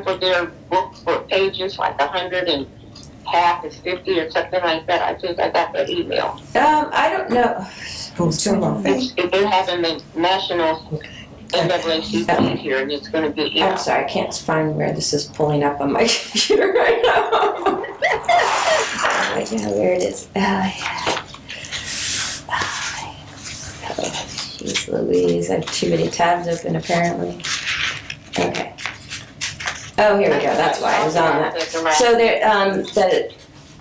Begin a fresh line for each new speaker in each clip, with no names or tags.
for their books for pages, like a hundred and half is fifty or something like that. I think I got that email.
Um, I don't know. Too long.
It's, it- they're having the national NAACP here, and it's going to be
I'm
yeah.
sorry, I can't find where this is pulling up on my computer right now. I know where it is. Ah, yeah. Ah, yeah. Oh, Jeez Louise, I have too many tabs open apparently. Okay. Oh, here we go, that's why I was on that. So there, um, the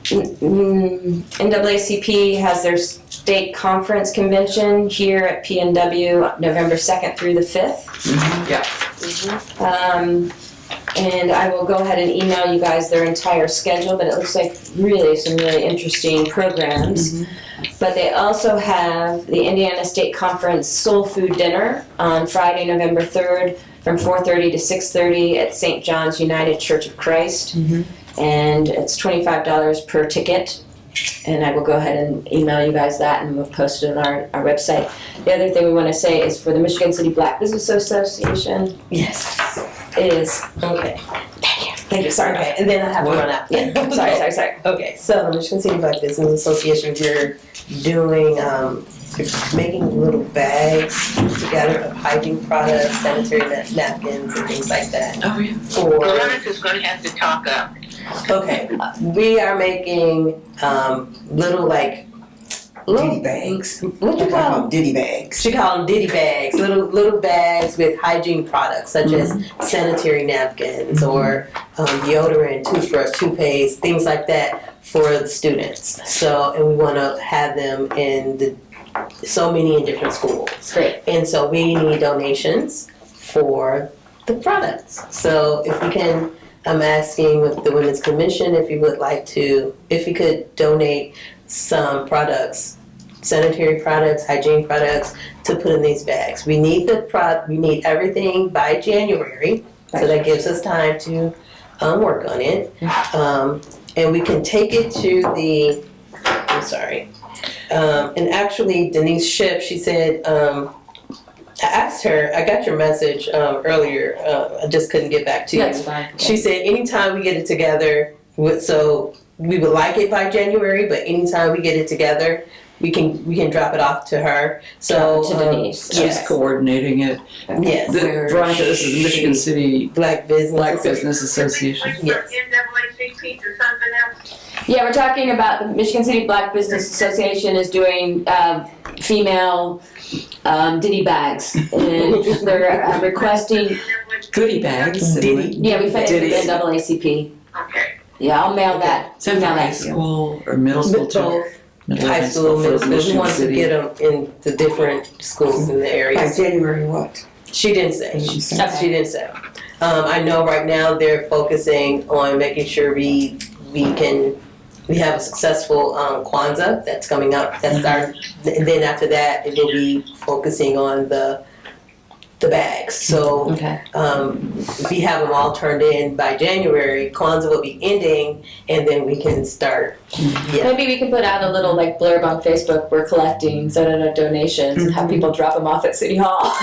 mm, NAACP has their state conference convention here at PNW, November second through the fifth. Um, and I will go ahead and email you guys their entire schedule, but it looks like really some really interesting programs. But they also have the Indiana State Conference Soul Food Dinner on Friday, November third, from four thirty to six thirty at St. John's United Church of Christ. And it's twenty-five dollars per ticket. And I will go ahead and email you guys that and we'll post it on our, our website. The other thing we wanna say is for the Michigan City Black Business Association,
Yes.
is okay. Thank you. Thank you. Sorry.
Okay, and then I have to
What?
run out.
Yeah. Sorry. Sorry. Sorry.
Okay, so the Michigan City Black Business Association, you're doing, um, you're making little bags together of hygiene products, sanitary na- napkins and things like that
Oh, yeah.
for,
Veronica is going to have to talk up.
okay, we are making, um, little like,
Diddy
little,
bags.
what you call 'em?
Diddy bags.
She called them ditty bags, little little bags with hygiene products such as sanitary napkins or um, deodorant, toothbrush, toothpaste, things like that for the students. So, and we want to have them in the so many in different schools.
Great.
And so we need donations for the products. So if we can, I'm asking with the Women's Commission if you would like to, if you could donate some products, sanitary products, hygiene products to put in these bags. We need the pro, we need everything by January, so that gives us time to um, work on it. Um, and we can take it to the, I'm sorry. Um, and actually Denise Ship, she said, um, I asked her, I got your message um, earlier, uh, I just couldn't get back to you.
That's fine.
She said, anytime we get it together, with- so we would like it by January, but anytime we get it together, we can we can drop it off to her. So
To
um,
Denise.
yes,
She's coordinating it.
yes,
The- Veronica, this is the Michigan City
black business.
Black Business Association.
Yes.
NAACP or something else.
Yeah, we're talking about the Michigan City Black Business Association is doing um, female um, ditty bags, and they're uh, requesting.
Goodie
Mm-hmm.
bags. and
Diddy.
Yeah, we found the
Ditties.
NAACP.
Okay.
Yeah, I'll mail that.
Is that for
Email
high
that to you.
school or middle school
With
too?
both high school,
for
middle school, we
Michigan
want to
City.
get them in the different schools in the area.
By January what?
She didn't say.
She said.
Okay.
She didn't say. Um, I know right now they're focusing on making sure we we can we have a successful um, Kwanzaa that's coming up. That's our. And then after that, it will be focusing on the the bags. So
Okay.
um, if we have them all turned in by January, Kwanzaa will be ending, and then we can start. Yeah.
Maybe we can put out a little like blurb on Facebook. We're collecting so donations and have people drop them off at City Hall.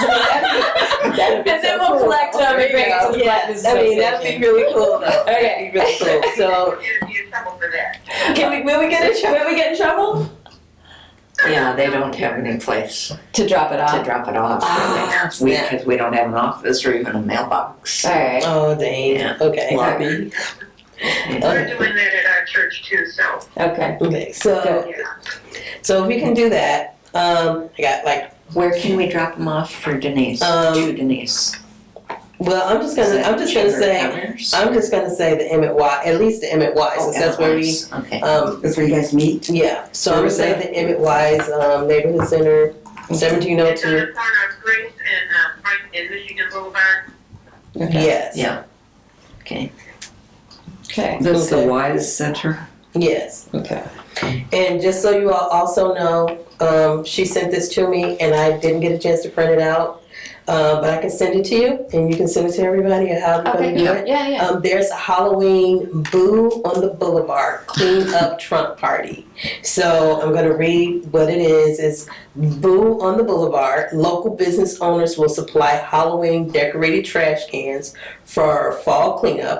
and
That'd
then we'll collect them and bring it to the Black
yeah,
Business
I
Association.
mean that'd be really cool though. That'd be really cool. So
Can we, will we get in trouble? Will we get in trouble?
Yeah, they don't have any place
To drop it
Uh,
to
off.
drop it off.
Ah,
we,
snap.
because we don't have an office or even a mailbox.
All right.
Oh, dang.
Yeah.
Okay.
Lobby.
Okay.
doing that
uh,
at our church too, so.
Okay.
Okay. So,
Yeah.
so if we can do that, um, I got like,
Where can we drop them off for Denise?
Um,
to Denise.
well, I'm just gonna, I'm just gonna say, I'm just gonna say the Emmett Wise, at least the Emmett Wise, since that's where we,
Oh, Okay.
um,
Oh, That's where you guys meet?
yeah. So I'm
Where
gonna
was
say
that?
the Emmett Wise um, Neighborhood Center, seventeen oh
It's on
two.
the corner of Grace and, uh, Frank and Michigan Boulevard.
Yes.
Yeah.
Okay.
That's the
Okay.
Wise Center.
Yes.
Okay.
And just so you all also know, um, she sent this to me, and I didn't get a chance to print it out. Uh, but I can send it to you, and you can send it to everybody and how we're
Okay.
going to do it.
Yeah, yeah.
Um, there's a Halloween Boo on the Boulevard Clean Up Trump Party. So I'm going to read what it is. It's Boo on the Boulevard. Local business owners will supply Halloween decorated trash cans for fall cleanup.